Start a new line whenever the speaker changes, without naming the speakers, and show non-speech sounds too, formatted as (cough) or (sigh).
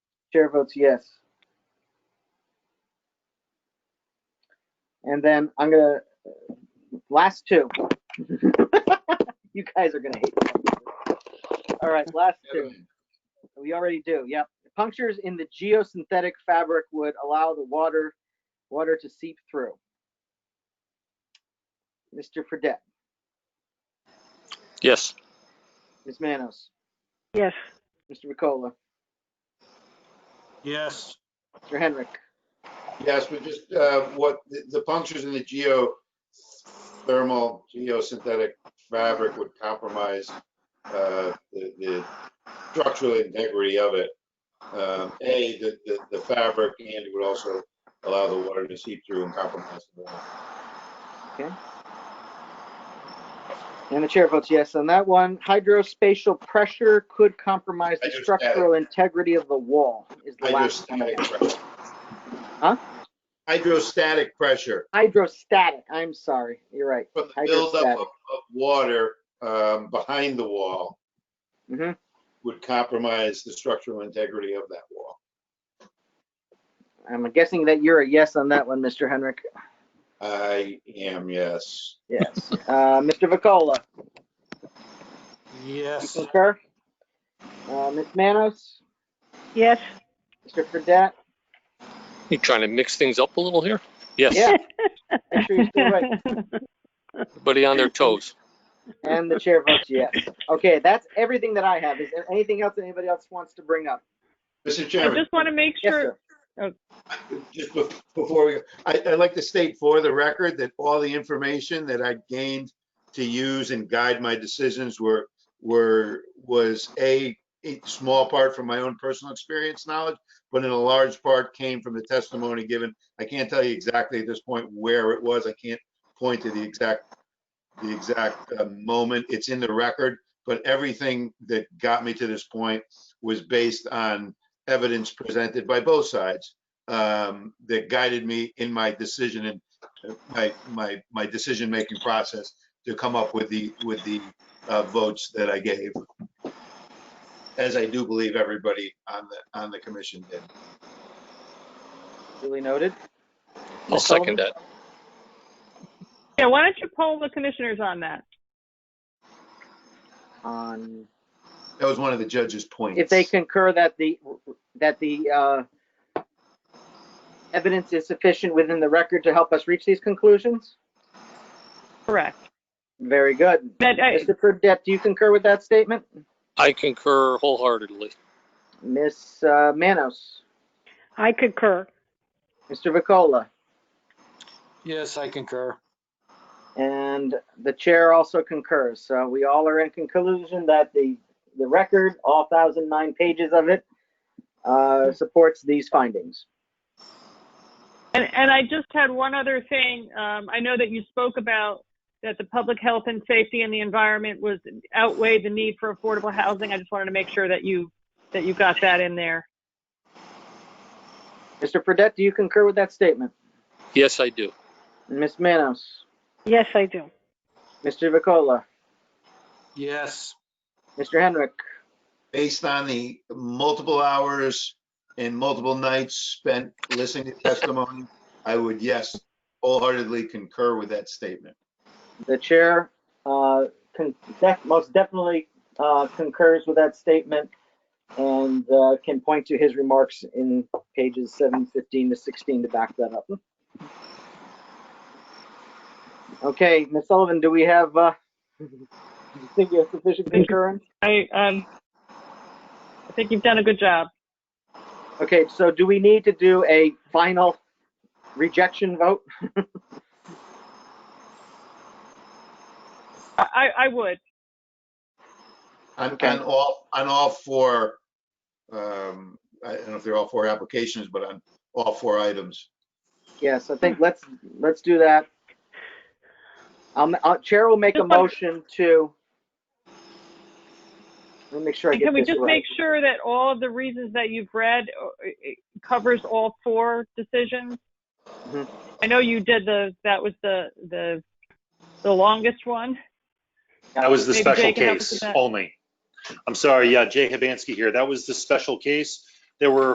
Chair votes yes. And then I'm gonna, last two. (laughs) You guys are gonna hate. this. All right, last two. We already do, yep. Punctures in the geosynthetic fabric would allow the water, water to seep through. Mr. Fredette,
Yes.
Ms. Manos,
Yes,
Mr. Ricola,
Yes.
Mr. Henrik.
Yes, but just uh, what, the- the punctures in the geothermal, geosynthetic fabric would compromise uh, the the structural integrity of it. Um, A, the- the the fabric, and it would also allow the water to seep through and compromise. the wall.
And the chair votes yes on that one. Hydrospatial pressure could compromise the
Hydrostatic.
structural integrity of the wall is the last one.
Hydrostatic pressure.
Huh?
Hydrostatic pressure
Hydrostatic, I'm sorry, you're right.
from the buildup
Hydrostatic.
of of water um, behind the wall
Mm-hmm.
Mhm.
would compromise the structural integrity of that wall.
I'm guessing that you're a yes on that one, Mr. Henrik.
I am, yes.
Yes.
(laughs)
Uh, Mr. Vacola, you
Yes.
concur? Uh, Ms. Manos,
yes,
Mr. Fredette?
You trying to mix things up a little here? Yes.
Yeah.
(laughs)
Make sure you're still right.
(laughs)
Everybody on their toes.
And the chair votes yes. Okay, that's everything that I have. Is there anything else that anybody else wants to bring up?
Mr.
I
Chairman,
just want to make
Yes,
sure,
sir.
just bef- before we, I, I'd like to state for the record that all the information that I gained to use and guide my decisions were, were, was a, a small part from my own personal experience knowledge, but in a large part came from the testimony given. I can't tell you exactly at this point where it was. I can't point to the exact, the exact uh, moment. It's in the record, but everything that got me to this point was based on evidence presented by both sides um, that guided me in my decision and uh, my, my, my decision-making process to come up with the, with the uh, votes that I gave. As I do believe everybody on the, on the commission did.
Duly noted.
I'll second that.
yeah, why don't you poll the commissioners on that?
On,
That was one of the judge's points.
if they concur that the, that the, uh, evidence is sufficient within the record to help us reach these conclusions?
Correct.
Very good.
That, I-
Mr. Fredette, do you concur with that statement?
I concur wholeheartedly.
Ms. uh, Manos,
I concur.
Mr. Vacola,
Yes, I concur.
and the chair also concurs. So we all are in conclusion that the, the record, all 1,009 pages of it, uh, supports these findings.
And, and I just had one other thing. Um, I know that you spoke about that the public health and safety and the environment was outweighed the need for affordable housing. I just wanted to make sure that you, that you got that in there.
Mr. Fredette, do you concur with that statement?
Yes, I do.
Ms. Manos,
Yes, I do.
Mr. Vacola,
Yes.
Mr. Henrik,
Based on the multiple hours and multiple nights spent listening to testimony, I would, yes, wholeheartedly concur with that statement.
the chair uh, con- def- most definitely uh, concurs with that statement and uh, can point to his remarks in pages 715 to 16 to back that up. Okay, Ms. Sullivan, do we have, uh, (laughs) do you think you have sufficient concurrence?
I, um, I think you've done a good job.
Okay, so do we need to do a final rejection vote?
I, I I would.
On,
Okay.
on all, on all four, um, I don't know if they're all four applications, but on all four items.
Yes, I think let's, let's do that. Um, uh, Chair will make a
Just one-
motion to. Let me make sure I
And
get
can we
this
just
right.
make sure that all of the reasons that you've read uh, it covers all four decisions?
Mhm.
I know you did the, that was the, the, the longest one.
That was the
Maybe
special
Jay can help us with
case
that.
only. I'm sorry, yeah, Jay Hibansky here. That was the special case. There were